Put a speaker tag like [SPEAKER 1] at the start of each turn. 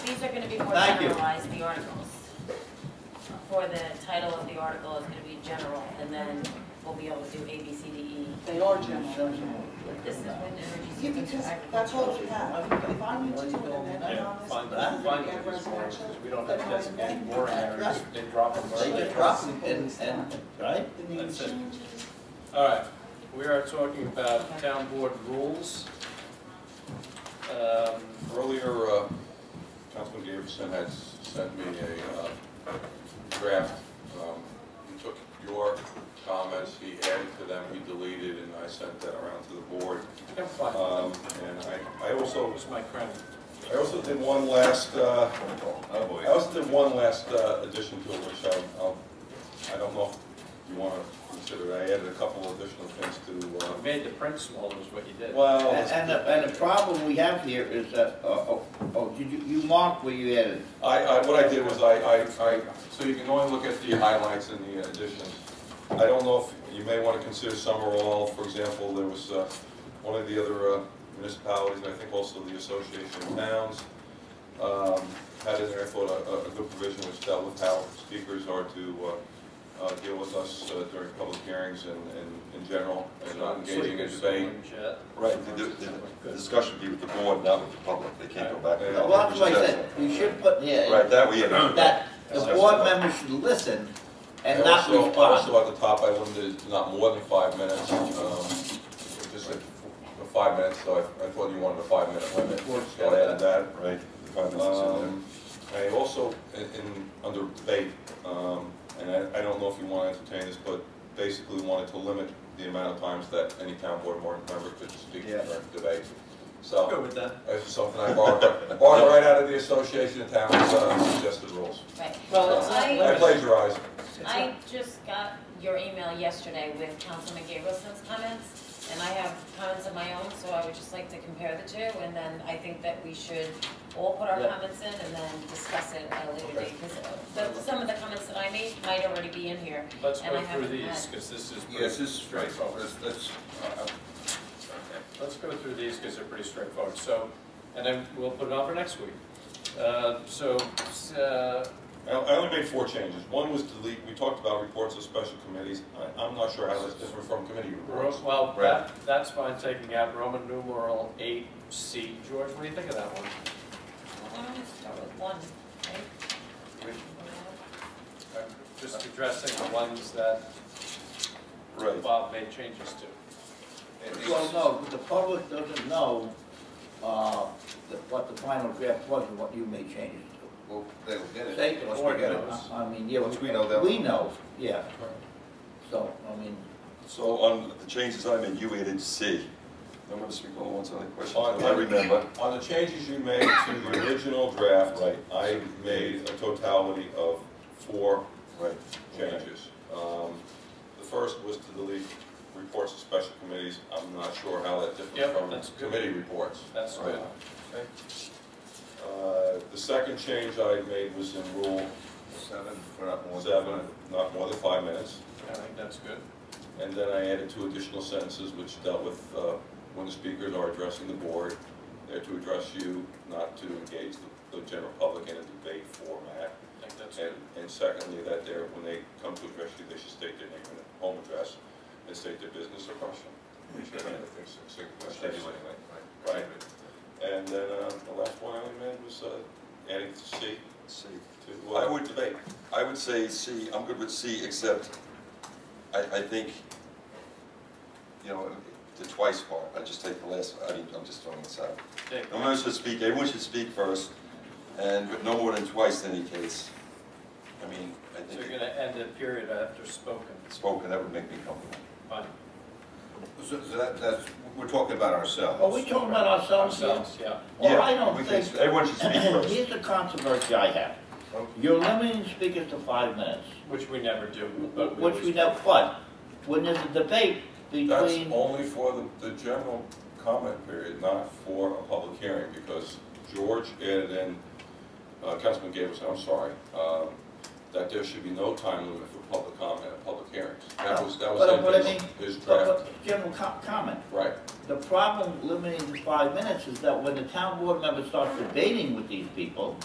[SPEAKER 1] be more
[SPEAKER 2] Thank you.
[SPEAKER 1] generalized, the articles. For the title of the article is gonna be general, and then we'll be able to do A, B, C, D, E.
[SPEAKER 3] They are general.
[SPEAKER 1] But This is wind energy.
[SPEAKER 3] Yeah, because that's all we have. If I need to do an amendment
[SPEAKER 4] Yeah,
[SPEAKER 3] on this,
[SPEAKER 4] fine,
[SPEAKER 3] I'm
[SPEAKER 4] but
[SPEAKER 3] gonna
[SPEAKER 4] fine
[SPEAKER 3] get
[SPEAKER 4] with these areas,
[SPEAKER 3] residential.
[SPEAKER 4] because we don't have designated boring areas, they drop them
[SPEAKER 2] They
[SPEAKER 4] wherever
[SPEAKER 2] just
[SPEAKER 4] they
[SPEAKER 2] drop
[SPEAKER 4] want.
[SPEAKER 2] them and, and, right?
[SPEAKER 3] The name
[SPEAKER 4] That's it.
[SPEAKER 3] changes.
[SPEAKER 4] All right, we are talking about town board rules. Um,
[SPEAKER 5] Earlier, uh, Councilman Davidson had s- sent me a uh, draft. Um, He took your comments, he added to them, he deleted, and I sent that around to the board.
[SPEAKER 4] I'm fine.
[SPEAKER 5] Um, And I I also,
[SPEAKER 4] Where's my crown?
[SPEAKER 5] I also did one last, uh, oh boy, I also did one last uh, addition to it, which I- I'll, I don't know if you want to consider. it. I added a couple additional things to,
[SPEAKER 4] You
[SPEAKER 5] uh,
[SPEAKER 4] made the print smaller is what you did.
[SPEAKER 5] well,
[SPEAKER 2] And, and the, and the problem we have here is that, oh, oh, oh, did you, you marked where you added.
[SPEAKER 5] I, I, what I did was I, I, I, so you can only look at the highlights and the additions. I don't know if, you may want to consider some or all, for example, there was, uh, one of the other uh, municipalities, and I think also the Association of Towns, um, had in there, I thought, a, a- a good provision which dealt with how speakers are to, uh, uh, deal with us uh, during public hearings and, and in general, and not engaging in debate.
[SPEAKER 6] Right, the, the- the discussion be with the board, not with the public, they can't go back and
[SPEAKER 5] Yeah.
[SPEAKER 2] Well,
[SPEAKER 6] out.
[SPEAKER 2] that's what I said, you should put here.
[SPEAKER 6] Right, that we, that,
[SPEAKER 2] that the board members should listen and not
[SPEAKER 5] also-
[SPEAKER 2] respond.
[SPEAKER 5] Also, at the top, I limited it to not more than five minutes, um, just like the five minutes, so I, I thought you wanted a five-minute limit, so I added that.
[SPEAKER 6] right, the five minutes is in there.
[SPEAKER 5] Um, I also, in, in, under debate, um, and I, I don't know if you want to entertain this, but basically wanted to limit the amount of times that any town board member could speak
[SPEAKER 2] Yeah.
[SPEAKER 5] during debate.
[SPEAKER 4] I'm good
[SPEAKER 5] So,
[SPEAKER 4] with that.
[SPEAKER 5] that's something I borrowed, borrowed right out of the Association of Towns, uh, suggested rules.
[SPEAKER 1] Right.
[SPEAKER 3] Well, it's not
[SPEAKER 1] I-
[SPEAKER 5] I
[SPEAKER 3] limited.
[SPEAKER 5] plagiarized.
[SPEAKER 3] It's not-
[SPEAKER 1] I just got your email yesterday with Councilman Gableson's comments, and I have comments of my own, so I would just like to compare the two, and then I think that we should all put our
[SPEAKER 2] Yeah.
[SPEAKER 1] comments in and then discuss it at a later
[SPEAKER 5] Okay.
[SPEAKER 1] date, because some of the comments that I made might already be in here.
[SPEAKER 4] Let's
[SPEAKER 1] And I
[SPEAKER 4] go through
[SPEAKER 1] haven't
[SPEAKER 4] these,
[SPEAKER 1] had-
[SPEAKER 4] because this is.
[SPEAKER 6] Yes,
[SPEAKER 4] pretty
[SPEAKER 6] this is right,
[SPEAKER 4] straightforward.
[SPEAKER 6] that's, that's, uh,
[SPEAKER 4] Let's go through these because they're pretty straightforward. So, and then we'll put it on for next week. Uh, So, uh,
[SPEAKER 5] I I only made four changes. One was delete, we talked about reports of special committees. I- I'm not sure how that's different from committee reports.
[SPEAKER 4] Ro- well,
[SPEAKER 6] Right.
[SPEAKER 4] that, that's fine, taking out Roman numeral eight C. George, what do you think of that one?
[SPEAKER 1] I'm gonna start with one, right?
[SPEAKER 4] I'm Uh, Just addressing the ones that
[SPEAKER 5] Right.
[SPEAKER 4] Bob made changes to.
[SPEAKER 2] Well, no, but the public doesn't know, uh, the- what the final draft was and what you made changes to.
[SPEAKER 6] well, they will get
[SPEAKER 2] Say,
[SPEAKER 6] it, once
[SPEAKER 2] or,
[SPEAKER 6] we get it.
[SPEAKER 2] I I mean, yeah.
[SPEAKER 6] Once we know that.
[SPEAKER 2] We know, yeah. So, I mean,
[SPEAKER 6] So on the changes I made, you added C. I'm gonna speak all once on the questions,
[SPEAKER 5] On-
[SPEAKER 6] I remember.
[SPEAKER 5] On the changes you made to the original draft, I made a totality of four
[SPEAKER 6] Right.
[SPEAKER 5] changes. Um, The first was to delete reports of special committees. I'm not sure how
[SPEAKER 4] Yep,
[SPEAKER 5] that
[SPEAKER 4] that's
[SPEAKER 5] differs from
[SPEAKER 4] good.
[SPEAKER 5] committee reports.
[SPEAKER 4] That's good.
[SPEAKER 5] Uh, The second change I made was in Rule
[SPEAKER 6] Seven, we're not more. than
[SPEAKER 5] seven,
[SPEAKER 6] five.
[SPEAKER 5] not more than five minutes.
[SPEAKER 4] I think that's good.
[SPEAKER 5] And then I added two additional sentences which dealt with uh, when the speakers are addressing the board, they're to address you, not to engage the- the general public in a debate format.
[SPEAKER 4] I think that's good.
[SPEAKER 5] And and secondly, that they're, when they come to address you, they should state their name and home address and state their business or question. Which I think is a sig-
[SPEAKER 6] Anyway,
[SPEAKER 5] anyway.
[SPEAKER 6] right,
[SPEAKER 5] Right. And then uh, the last one I made was uh, adding C
[SPEAKER 6] C.
[SPEAKER 5] to uh,
[SPEAKER 6] I would-
[SPEAKER 5] debate.
[SPEAKER 6] I would say C, I'm good with C, except I, I think, you know, the twice part, I just take the last, I mean, I'm just throwing this out.
[SPEAKER 4] Okay.
[SPEAKER 6] No one should speak, everyone should speak first, and, but no more than twice in any case. I mean, I
[SPEAKER 4] So you're
[SPEAKER 6] think
[SPEAKER 4] gonna end the period after spoken.
[SPEAKER 6] spoken, that would make me comfortable.
[SPEAKER 4] Fine.
[SPEAKER 7] So so that, that's, we're talking about ourselves.
[SPEAKER 2] are we talking about ourselves here?
[SPEAKER 4] Ourselves, yeah.
[SPEAKER 2] Well,
[SPEAKER 6] Yeah,
[SPEAKER 2] I don't
[SPEAKER 6] we can-
[SPEAKER 2] think,
[SPEAKER 6] Everyone should speak first.
[SPEAKER 2] here's the controversy I have. You're limiting speakers to five minutes,
[SPEAKER 4] Which we never do, but we
[SPEAKER 2] which we know,
[SPEAKER 4] always-
[SPEAKER 2] but when there's a debate
[SPEAKER 5] That's
[SPEAKER 2] between,
[SPEAKER 5] only for the, the general comment period, not for a public hearing, because George added in, uh, Councilman Gables, I'm sorry, um, that there should be no time limit for public comment at public hearings. That was, that
[SPEAKER 2] But- but I
[SPEAKER 5] was in
[SPEAKER 2] mean-
[SPEAKER 5] his, his
[SPEAKER 2] but-
[SPEAKER 5] draft,
[SPEAKER 2] but general co- comment.
[SPEAKER 5] right.
[SPEAKER 2] The problem limiting to five minutes is that when the town board member starts debating with these people,